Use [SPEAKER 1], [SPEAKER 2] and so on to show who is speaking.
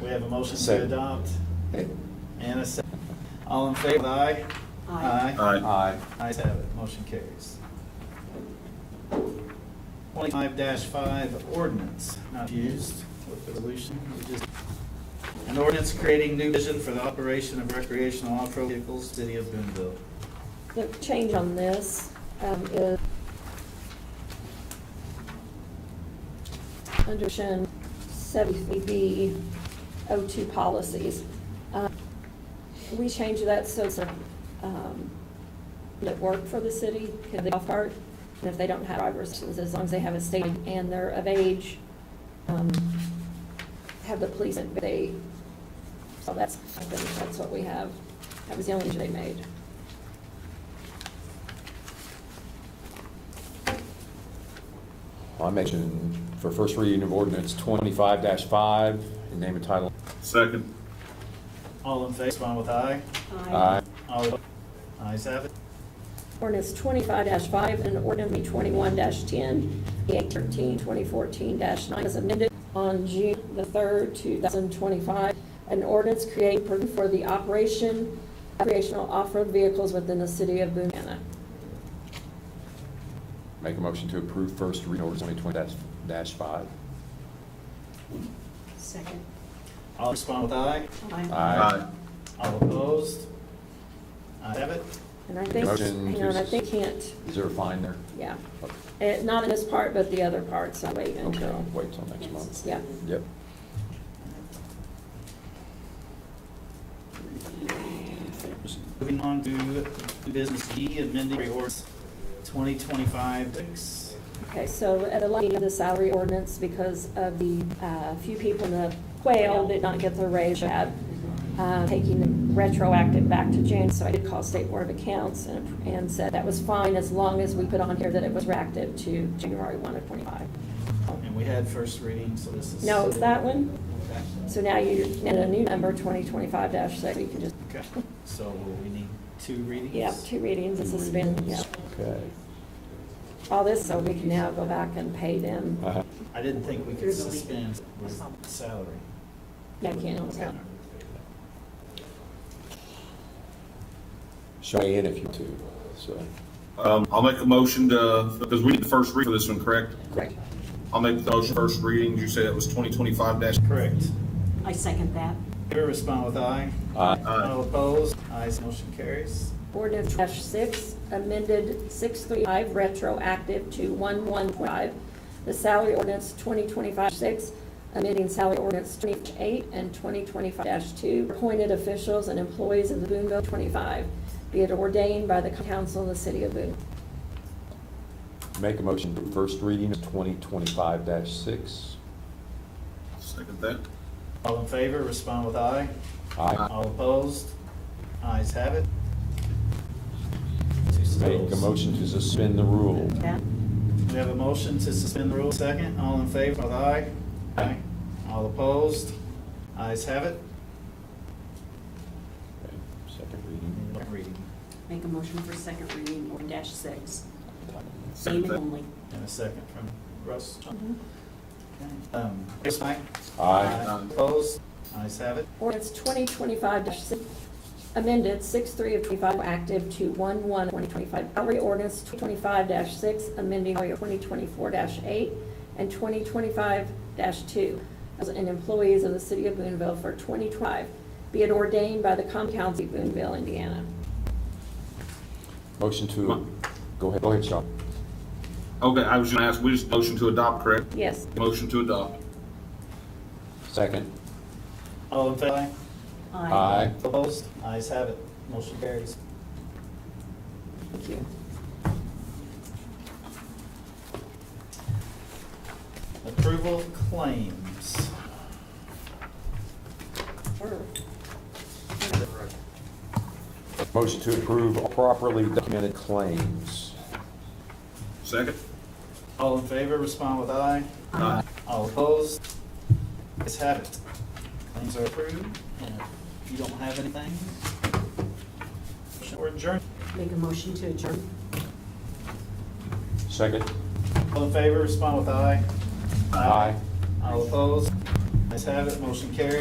[SPEAKER 1] We have a motion to
[SPEAKER 2] Second.
[SPEAKER 1] adopt and a second. All in favor, aye?
[SPEAKER 3] Aye.
[SPEAKER 4] Aye.
[SPEAKER 2] Aye.
[SPEAKER 1] Ayes have it, motion carries. Twenty-five five, ordinance, not used with the resolution, we just, an ordinance creating new vision for the operation of recreational off-road vehicles, city of Boonville.
[SPEAKER 3] The change on this um, is under section 73B 02 policies. Um, We changed that so it's a, um, that work for the city, can they off-cart? And if they don't have driver's licenses, as long as they have a state and they're of age, um, have the police, and they, so that's, I think that's what we have. That was the only change they made.
[SPEAKER 2] I mentioned for first reading of ordinance twenty-five five, in name and title.
[SPEAKER 4] Second.
[SPEAKER 1] All in favor, respond with aye.
[SPEAKER 2] Aye.
[SPEAKER 1] All opposed? Ayes have it,
[SPEAKER 3] Ordinance twenty-five five and ordinance twenty-one 10 eight thirteen, twenty fourteen nine is amended on June the third, two thousand twenty-five. An ordinance creating provision for the operation of recreational off-road vehicles within the city of Boonana.
[SPEAKER 2] Make a motion to approve first reading ordinance twenty twenty dash five.
[SPEAKER 5] Second.
[SPEAKER 1] all respond with aye.
[SPEAKER 2] Aye.
[SPEAKER 1] All opposed? Ayes have it,
[SPEAKER 3] And I think,
[SPEAKER 2] Motion
[SPEAKER 3] hang on, I
[SPEAKER 2] to-
[SPEAKER 3] think can't,
[SPEAKER 2] Is there a fine there?
[SPEAKER 3] yeah,
[SPEAKER 2] Okay.
[SPEAKER 3] Eh, not in this part, but the other part, so wait
[SPEAKER 2] Okay,
[SPEAKER 3] until.
[SPEAKER 2] I'll wait till next month.
[SPEAKER 3] Yeah.
[SPEAKER 2] Yep.
[SPEAKER 1] moving on to business D, amending ordinance twenty twenty-five six.
[SPEAKER 3] Okay, so at the looking of the salary ordinance, because of the uh, few people in the quail did not get their raise yet, uh, taking the retroactive back to June, so I did call State Board of Accounts and and said that was fine as long as we put on here that it was reactive to January 1 of '25.
[SPEAKER 1] And we had first reading, so this is.
[SPEAKER 3] No, it's that one,
[SPEAKER 1] Okay.
[SPEAKER 3] so now you're in a new number, 2025-6, you can just,
[SPEAKER 1] Okay, so will we need two readings?
[SPEAKER 3] yeah, two readings, it's suspended, yeah.
[SPEAKER 2] Okay.
[SPEAKER 3] All this, so we can now go back and pay them,
[SPEAKER 2] Uh-huh.
[SPEAKER 1] I didn't think we could
[SPEAKER 5] There's a leak.
[SPEAKER 1] suspend with salary.
[SPEAKER 3] that can, so.
[SPEAKER 2] Show me in if you want to, so.
[SPEAKER 4] Um, I'll make a motion to, because we need the first read for this one, correct?
[SPEAKER 2] Great.
[SPEAKER 4] I'll make the motion first reading. You said it was twenty twenty-five dash.
[SPEAKER 1] Correct.
[SPEAKER 5] I second that.
[SPEAKER 1] Here, respond with aye.
[SPEAKER 2] Aye.
[SPEAKER 1] All opposed? Ayes, motion carries.
[SPEAKER 3] Ordinance dash six, amended six three five retroactive to one one five. The salary ordinance twenty twenty-five six, amending salary ordinance twenty-eight and twenty twenty-five two, appointed officials and employees of the Boonville twenty-five, be it ordained by the council of the city of Boone.
[SPEAKER 2] Make a motion to first reading of twenty twenty-five dash six.
[SPEAKER 4] Second that.
[SPEAKER 1] All in favor, respond with aye.
[SPEAKER 2] Aye.
[SPEAKER 1] All opposed? Ayes have it.
[SPEAKER 2] Make a motion to suspend the rule.
[SPEAKER 5] That,
[SPEAKER 1] We have a motion to suspend the rules, second. All in favor, with aye. Aye. All opposed? Ayes have it.
[SPEAKER 2] Okay, Second reading.
[SPEAKER 1] Reading
[SPEAKER 5] make a motion for second reading or dash six.
[SPEAKER 4] Second
[SPEAKER 5] Name
[SPEAKER 4] that.
[SPEAKER 5] only.
[SPEAKER 1] in a second from Russ. Okay. Um, yes, aye.
[SPEAKER 2] Aye.
[SPEAKER 1] Opposed? Ayes have it.
[SPEAKER 3] Ordinance twenty twenty-five six, amended six three of twenty-five active to one one twenty twenty-five. Salary ordinance twenty twenty-five six, amending twenty twenty-four eight and twenty twenty-five two. And employees of the city of Boonville for twenty twenty-five, be it ordained by the common council of Boonville, Indiana.
[SPEAKER 2] Motion to, go ahead, go ahead, Sean.
[SPEAKER 4] Okay, I was gonna ask, we just motion to adopt, correct?
[SPEAKER 3] Yes,
[SPEAKER 4] Motion to adopt.
[SPEAKER 2] Second.
[SPEAKER 1] All in favor? Aye.
[SPEAKER 2] Aye.
[SPEAKER 1] Opposed? Ayes have it. Motion carries.
[SPEAKER 3] thank you.
[SPEAKER 1] Approval of claims.
[SPEAKER 3] Sure.
[SPEAKER 2] Motion to approve properly documented claims.
[SPEAKER 4] Second?
[SPEAKER 1] All in favor, respond with aye.
[SPEAKER 4] Aye.
[SPEAKER 1] All opposed? Ayes have it. Claims are approved, and if you don't have anything, or adjourn.
[SPEAKER 5] Make a motion to adjourn.
[SPEAKER 2] Second.
[SPEAKER 1] All in favor, respond with aye.
[SPEAKER 2] Aye.
[SPEAKER 1] All opposed? Ayes have it, motion carries.